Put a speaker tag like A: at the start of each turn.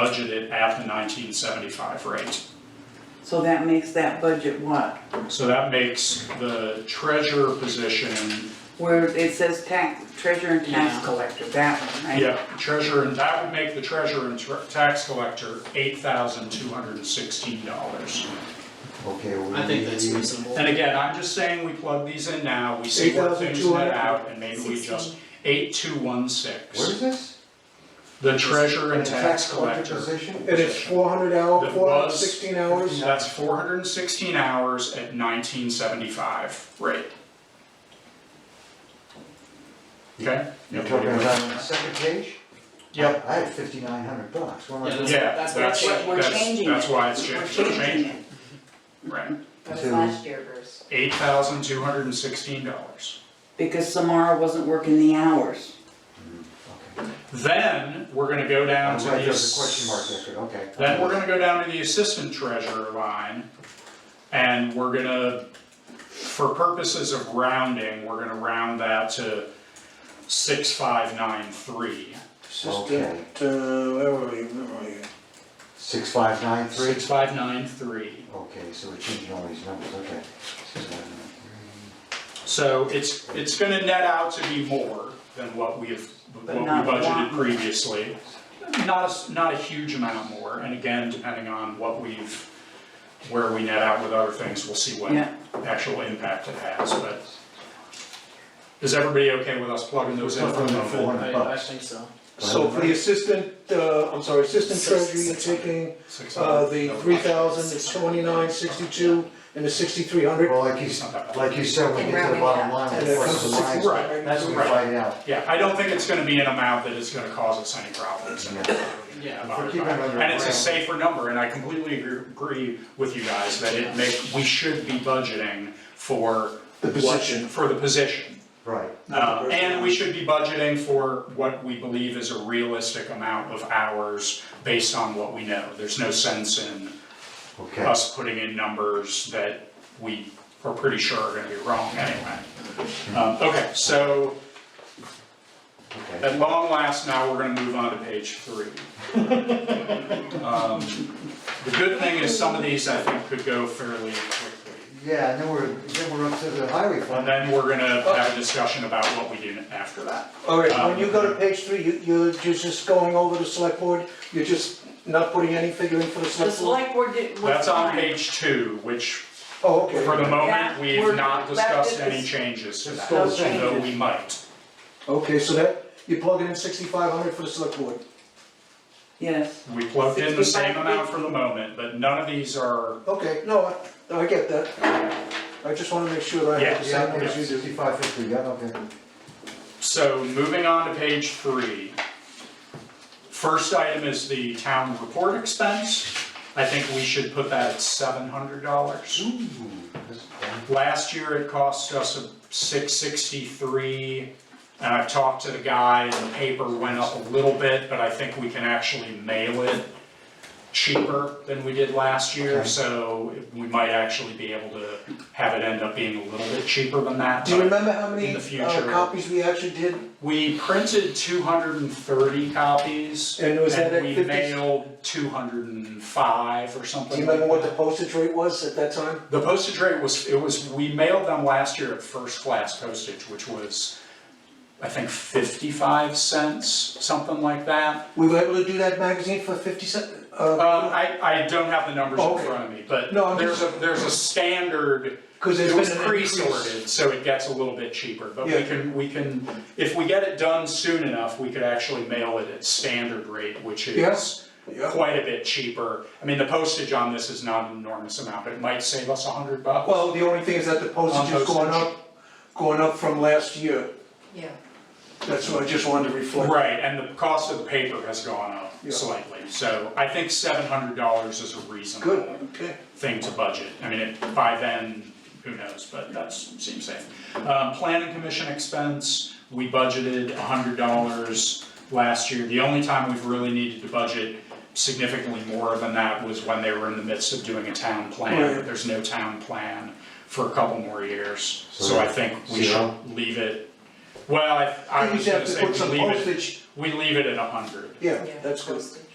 A: budgeted at the nineteen seventy-five rate.
B: So that makes that budget what?
A: So that makes the treasurer position,
B: Where it says tax, treasurer and tax
C: Yeah.
B: collector, that one, right?
A: yeah, treasurer, and that would make the treasurer and tr- tax collector eight thousand two hundred and sixteen dollars.
D: Okay, well, we
C: I think that's
D: need-
C: reasonable.
A: And again, I'm just saying we plug these in now, we see where things net
D: 8,200.
A: out, and maybe we just, eight two one six.
D: Where is this?
A: The treasurer and
D: The
A: tax collector,
D: position?
E: And it's four hundred hour,
A: That
E: four hundred
A: was-
E: sixteen hours,
A: that's four hundred and sixteen hours at nineteen seventy-five rate. Okay?
D: You're talking about on the second page?
A: Yep.
D: I I had fifty-nine hundred bucks, what am I
C: Yeah,
D: doing?
A: Yeah,
C: That's
A: that's,
C: what
A: that's,
C: I'm saying,
B: we're changing
A: that's
B: it.
A: why it's
B: We're
A: changed, it's
B: changing
A: changed,
B: it.
A: right,
F: That was
D: To-
F: last year versus.
A: eight thousand two hundred and sixteen dollars.
B: Because Samara wasn't working the hours.
A: Then, we're gonna go down
D: I'm
A: to
D: glad
A: the,
D: there's a question mark
A: ass-
D: there, good, okay.
A: then we're gonna go down to the assistant treasurer line, and we're gonna, for purposes of rounding, we're gonna round that to six five nine three.
D: Okay.
E: assistant, uh, where were we, where were we?
D: Six five nine three?
A: Six five nine three,
D: Okay, so we're changing all these numbers, okay. Six, five, nine,
A: so it's, it's gonna net out to be more than what we have, what
B: But
A: we
B: not
A: budgeted
B: one.
A: previously. Not a, s- not a huge amount more, and again, depending on what we've, where we net out with other things, we'll see what
B: Yeah.
A: actual impact it has, but. Is everybody okay with us plugging those in for a
D: Plugging in
A: moment?
D: four.
C: I, I think so.
E: So for the assistant, uh, I'm sorry, assistant treasurer, you're taking,
A: Six
E: uh,
A: hundred.
E: the
A: No,
E: three thousand, it's twenty-nine, sixty-two, and the sixty-three hundred.
D: Well, like you,
A: It's not that
D: s-
A: bad.
D: like you said, when we get to the bottom line,
E: And
D: we
E: that
D: cross
E: comes to
D: the lines,
A: Right.
D: that's what we
A: Right.
D: find out.
A: Yeah, I don't think it's gonna be an amount that is gonna cause us any problems. and-
C: Yeah.
A: about it.
D: Keep it under
A: And it's a
D: wrap.
A: safer number, and I completely agree- agree with you guys that it make, we should be budgeting for.
E: The
A: what-
E: position.
A: For the position.
D: Right,
A: Uh, and we should be budgeting for what we believe is a realistic amount of hours based on what we know. There's no sense in
D: okay.
A: us putting in numbers that we are pretty sure are gonna be wrong anyway. Um, okay, so
D: Okay.
A: at long last, now we're gonna move on to page three. Um, The good thing is some of these I think could go fairly quickly.
D: Yeah, and then we're, then we're up to the highway
A: And
D: fund.
A: then we're gonna have a discussion about what we do after that.
E: All right,
A: Um,
E: when you go to page three, you, you're just just going over the select board, you're just not putting any figure in for the
B: The
E: select board?
B: select board did, was
A: That's on
B: fine.
A: page two, which
E: Oh, okay.
A: For the moment,
B: That
A: we have
B: we're-
A: not
B: that
A: discussed
B: is-
A: any changes to
D: It's
A: that,
D: still
B: the same.
A: although we might.
E: Okay, so that, you're plugging in sixty-five hundred for the select board?
B: Yes,
A: We plugged in the same
B: 65.
A: amount for the moment, but none of these are,
E: Okay, no, I, no, I get that. I just wanna make sure that I have the
D: Yeah,
E: same
D: no,
E: numbers you do.
D: sixty-five fifty, yeah, okay.
A: so moving on to page three. First item is the town report expense. I think we should put that at seven hundred dollars.
D: Ooh, that's-
A: Last year, it cost us six sixty-three, and I've talked to the guy, and the paper went up a little bit, but I think we can actually mail it cheaper than we did last year,
D: Okay.
A: so we might actually be able to have it end up being a little bit cheaper than that.
E: Do you
A: but
E: remember how
A: In
E: many
A: the
E: uh,
A: future.
E: copies we actually did?
A: We printed two hundred and thirty copies,
E: And was that at
A: and we
E: 50?
A: mailed two hundred and five or something
E: Do you remember
A: like
E: what
A: that.
E: the postage rate was at that time?
A: The postage rate was, it was, we mailed them last year at first class postage, which was, I think, fifty-five cents, something like that.
E: We were able to do that magazine for fifty cent,
A: Um,
E: uh,
A: I, I don't have the numbers in
E: Okay.
A: front of me, but
E: No, I'm
A: there's a,
E: just-
A: there's a standard,
E: cause there's
A: it
E: been
A: was
E: an increase.
A: pre-sorted, so it gets a little bit cheaper, but we
E: Yeah.
A: can, we can, if we get it done soon enough, we could actually mail it at standard rate, which is
E: Yeah. Yeah.
A: quite a bit cheaper. I mean, the postage on this is not an enormous amount, but it might save us a hundred bucks.
E: Well, the only thing is that the postage
A: On
E: is going
A: postage.
E: up, going up from last year,
F: Yeah.
E: that's what I just wanted to reflect.
A: Right, and the cost of the paper has gone up
E: Yeah.
A: slightly, so I think seven hundred dollars is a
E: Good,
A: reasonable
E: okay.
A: thing to budget. I mean, it- by then, who knows, but that seems safe. Um, planning commission expense, we budgeted hundred dollars last year. The only time we've really needed to budget significantly more than that was when they were in the midst of doing a town plan.
E: Right.
A: There's no town plan for a couple more years, so I think we
D: Zero?
A: should leave it. Well, I, I
E: You
A: was
E: just have
A: gonna
E: to
A: say
E: put
A: we
E: some
A: leave it
E: postage,
A: we leave it at a hundred.
E: yeah, that's good.
F: postage.